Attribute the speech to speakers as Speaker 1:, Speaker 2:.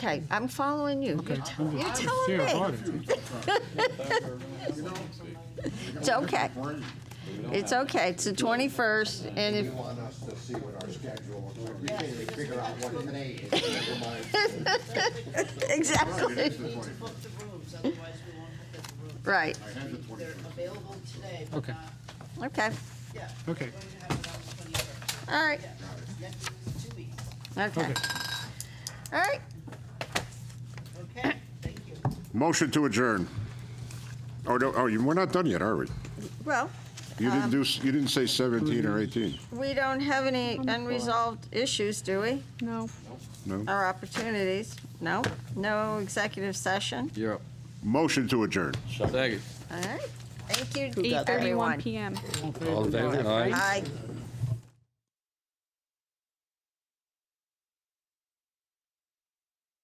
Speaker 1: Okay, I'm following you. You're t-
Speaker 2: I'm
Speaker 1: You're
Speaker 2: just
Speaker 1: telling
Speaker 2: fair
Speaker 1: me.
Speaker 2: hearted.
Speaker 1: It's okay. It's okay. It's the 21st, and if,
Speaker 3: You want us to see what our schedule looks like. You can't even figure out what today is, never mind.
Speaker 1: exactly,
Speaker 3: It's the
Speaker 4: Need to
Speaker 3: 21st.
Speaker 4: book the rooms, otherwise we won't book the rooms.
Speaker 1: right,
Speaker 3: I had the
Speaker 4: They're
Speaker 3: 21st.
Speaker 4: available today, but
Speaker 2: Okay.
Speaker 4: not,
Speaker 1: okay,
Speaker 4: yeah.
Speaker 2: Okay.
Speaker 4: We're going to have it on the 21st.
Speaker 1: all right,
Speaker 4: Yeah, next is two weeks.
Speaker 1: okay,
Speaker 2: Okay.
Speaker 1: all right.
Speaker 4: Okay, thank you.
Speaker 5: Motion to adjourn. Oh, no, oh, you- we're not done yet, are we?
Speaker 1: Well,
Speaker 5: You didn't do, s- you didn't say 17 or 18,
Speaker 1: we don't have any unresolved issues, do we?
Speaker 6: No.
Speaker 5: no?
Speaker 1: Or opportunities? No? No executive session?
Speaker 7: You're up.
Speaker 5: Motion to adjourn.
Speaker 7: Second.
Speaker 1: All right, thank you, E
Speaker 6: Eight thirty-one
Speaker 1: everyone.
Speaker 6: PM.
Speaker 7: All in favor? Aye.
Speaker 1: Aye.